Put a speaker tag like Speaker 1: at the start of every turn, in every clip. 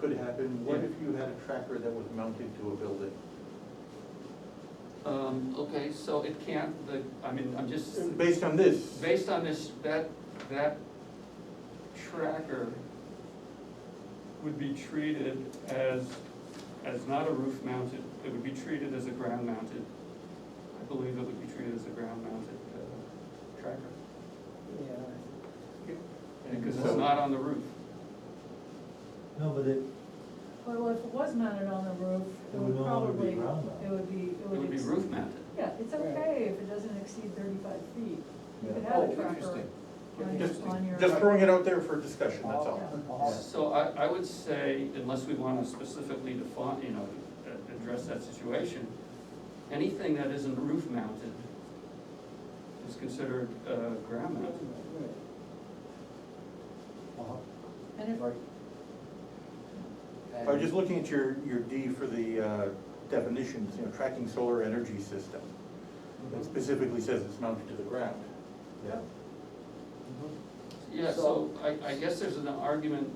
Speaker 1: could happen, what if you had a tracker that was mounted to a building?
Speaker 2: Um, okay, so it can't, the, I mean, I'm just,
Speaker 1: Based on this,
Speaker 2: based on this, that, that tracker would be treated as, as not a roof mounted, it would be treated as a ground mounted. I believe it would be treated as a ground mounted, uh, tracker,
Speaker 3: Yeah,
Speaker 1: and
Speaker 2: because
Speaker 1: so-
Speaker 2: it's not on the roof.
Speaker 4: No, but it,
Speaker 5: Well, if it was mounted on the roof, it
Speaker 4: It would
Speaker 5: would
Speaker 4: no longer be
Speaker 5: probably, it
Speaker 4: ground mounted.
Speaker 5: would be, it
Speaker 2: It
Speaker 5: would.
Speaker 2: would be
Speaker 5: ex-
Speaker 2: roof mounted.
Speaker 5: Yeah, it's okay if it doesn't exceed thirty-five feet. You
Speaker 4: Yeah.
Speaker 5: could have
Speaker 1: Oh,
Speaker 5: a tracker
Speaker 1: interesting.
Speaker 5: on
Speaker 1: Just,
Speaker 5: your, on your.
Speaker 1: just throwing it out there for discussion, that's all.
Speaker 5: Yeah.
Speaker 3: I'll-
Speaker 2: So I, I would say, unless we wanna specifically define, you know, a- address that situation, anything that isn't roof mounted is considered, uh, ground mounted.
Speaker 3: I'll-
Speaker 5: And if,
Speaker 3: Right.
Speaker 1: I was just looking at your, your D for the uh, definitions, you know, tracking solar energy system. It specifically says it's mounted to the ground.
Speaker 3: Yeah.
Speaker 2: Yeah, so I, I guess there's an argument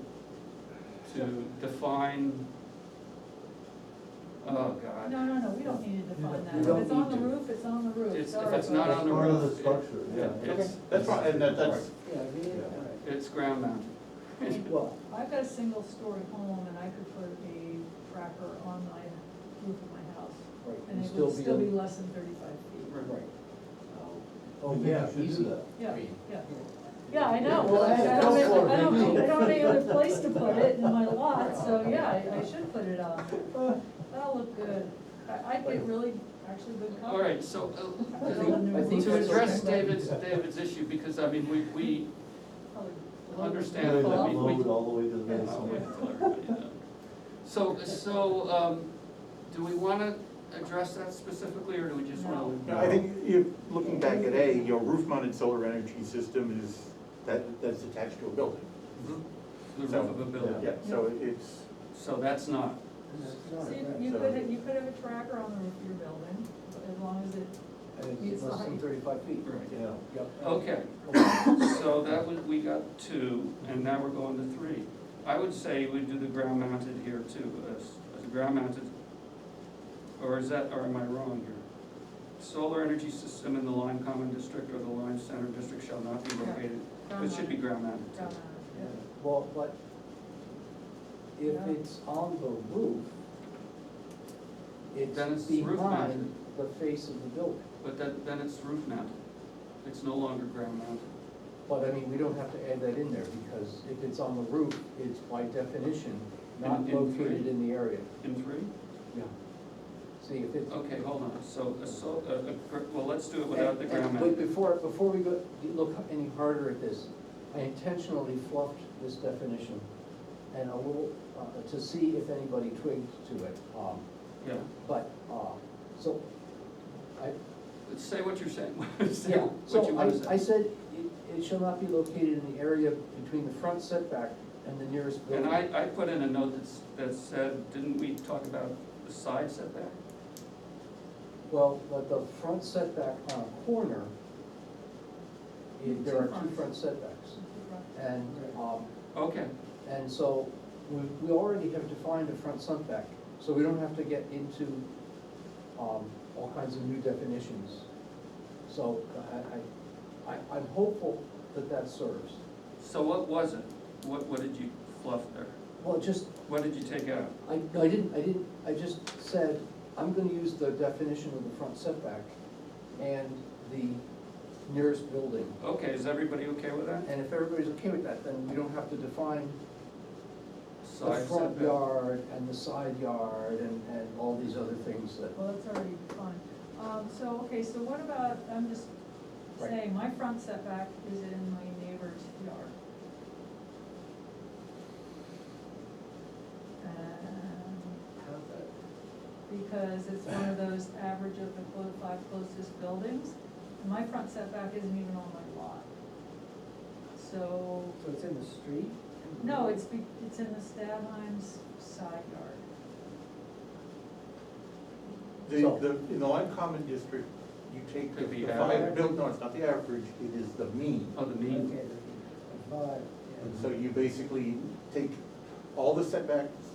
Speaker 2: to define, oh god.
Speaker 5: no, no, no, we don't need to define
Speaker 4: You
Speaker 5: that.
Speaker 3: don't- you
Speaker 5: If it's
Speaker 3: don't
Speaker 5: on the
Speaker 3: need to.
Speaker 5: roof, it's on the roof.
Speaker 2: It's- if
Speaker 5: Sorry,
Speaker 2: it's not
Speaker 5: but-
Speaker 2: on the
Speaker 4: part of the
Speaker 2: roof, it-
Speaker 4: structure, yeah.
Speaker 2: It's,
Speaker 1: That's fine, and that- that's,
Speaker 3: Yeah, we,
Speaker 4: Yeah.
Speaker 3: all right.
Speaker 2: it's ground mounted.
Speaker 3: Well,
Speaker 5: I've got a single-story home and I could put a tracker on my roof of my house
Speaker 3: right,
Speaker 5: and
Speaker 3: and
Speaker 5: it would still be
Speaker 3: a-
Speaker 5: less than thirty-five feet.
Speaker 3: Right.
Speaker 5: So,
Speaker 4: oh, yeah, you should do that.
Speaker 5: Yeah,
Speaker 6: Feet.
Speaker 5: yeah. Yeah, I know,
Speaker 3: Well,
Speaker 5: I
Speaker 3: that's
Speaker 5: I
Speaker 3: a
Speaker 5: don't,
Speaker 3: floor,
Speaker 5: I don't,
Speaker 3: maybe.
Speaker 5: I don't have any other place to put it in my lot, so yeah, I, I should put it on. That'll look good. I, I'd get really, actually good coverage.
Speaker 2: All right, so,
Speaker 5: I think- I
Speaker 2: uh,
Speaker 5: think
Speaker 2: to
Speaker 5: that's
Speaker 2: address
Speaker 5: okay.
Speaker 2: David's, David's issue, because I mean, we, we,
Speaker 5: Probably a little-
Speaker 2: Understand,
Speaker 4: Really,
Speaker 2: but
Speaker 4: that
Speaker 2: we-
Speaker 4: load all the way to the
Speaker 5: Yeah.
Speaker 2: I'll wait
Speaker 4: basement.
Speaker 2: till everybody done. So, so, um, do we wanna address that specifically, or do we just wanna? leave
Speaker 1: no, I think, if, looking back at A, your roof-mounted solar energy system is, that, that's attached to a building.
Speaker 2: The roof of a building,
Speaker 1: Yeah, so it's,
Speaker 2: so that's not,
Speaker 3: That's
Speaker 5: So
Speaker 3: not
Speaker 5: you,
Speaker 3: right.
Speaker 5: you could, you could have a tracker on the roof of your building, as long as it,
Speaker 3: And it's
Speaker 5: It's
Speaker 3: less than
Speaker 5: like-
Speaker 3: thirty-five feet.
Speaker 2: right,
Speaker 4: Yeah,
Speaker 3: Yep.
Speaker 2: okay, so that was, we got two, and now we're going to three. I would say we do the ground mounted here too, as, as a ground mounted, or is that, or am I wrong here? Solar energy system in the Lime Common District or the Lime Center District shall not be located, it should be ground mounted
Speaker 5: down
Speaker 2: too.
Speaker 3: Yeah. Well, but if
Speaker 5: Yeah.
Speaker 3: it's on the roof,
Speaker 2: Then it's
Speaker 3: it's
Speaker 2: roof
Speaker 3: behind
Speaker 2: mounted.
Speaker 3: the face of the building.
Speaker 2: But that, then it's roof mounted, it's no longer ground mounted.
Speaker 3: But I mean, we don't have to add that in there, because if it's on the roof, it's by definition not
Speaker 2: In- in three.
Speaker 3: located in the area.
Speaker 2: In three?
Speaker 3: Yeah. See, if it's.
Speaker 2: Okay, hold on, so, a so, a- a gr- well, let's do it without the
Speaker 3: And-
Speaker 2: ground
Speaker 3: and- But
Speaker 2: mounted.
Speaker 3: before, before we go, you look any harder at this, I intentionally fluffed this definition and a little, uh, to see if anybody twigged to it. um,
Speaker 2: Yeah,
Speaker 3: But, uh, so, I,
Speaker 2: Let's say what you're saying, say
Speaker 3: yeah,
Speaker 2: what you
Speaker 3: so
Speaker 2: want to
Speaker 3: I, I
Speaker 2: say.
Speaker 3: said, it, it shall not be located in the area between the front setback and the nearest building.
Speaker 2: And I, I put in a note that's, that said, didn't we talk about the side setback?
Speaker 3: Well, but the front setback on a corner, it- there are two front setbacks. And, um,
Speaker 2: Okay,
Speaker 3: and so we, we already have defined a front setback, so we don't have to get into, um, all kinds of new definitions. So I- I, I, I'm hopeful that that serves.
Speaker 2: so what was it? What, what did you fluff there?
Speaker 3: Well, just,
Speaker 2: What did you take out?
Speaker 3: I, no, I didn't, I didn't, I just said, I'm gonna use the definition of the front setback and the nearest building.
Speaker 2: Okay, is everybody okay with that?
Speaker 3: And if everybody's okay with that, then we don't have to define the
Speaker 2: Side
Speaker 3: front
Speaker 2: setback.
Speaker 3: yard and the side yard and, and all these other things that.
Speaker 5: Well, that's already fine. Um, so, okay, so what about, I'm just
Speaker 3: Right.
Speaker 5: saying, my front setback is in my neighbor's yard. And because it's one of those average of the clo- five closest buildings, and my front setback isn't even on my lot. So,
Speaker 3: So it's in the street?
Speaker 5: no, it's be, it's in the Stadheim's side yard.
Speaker 1: the,
Speaker 3: So-
Speaker 1: the, in the Lime Common District, you take
Speaker 2: Could be
Speaker 1: the five,
Speaker 2: average.
Speaker 1: build- no, it's not the average, it is the mean.
Speaker 2: Oh, the mean,
Speaker 1: And so you basically take all the setbacks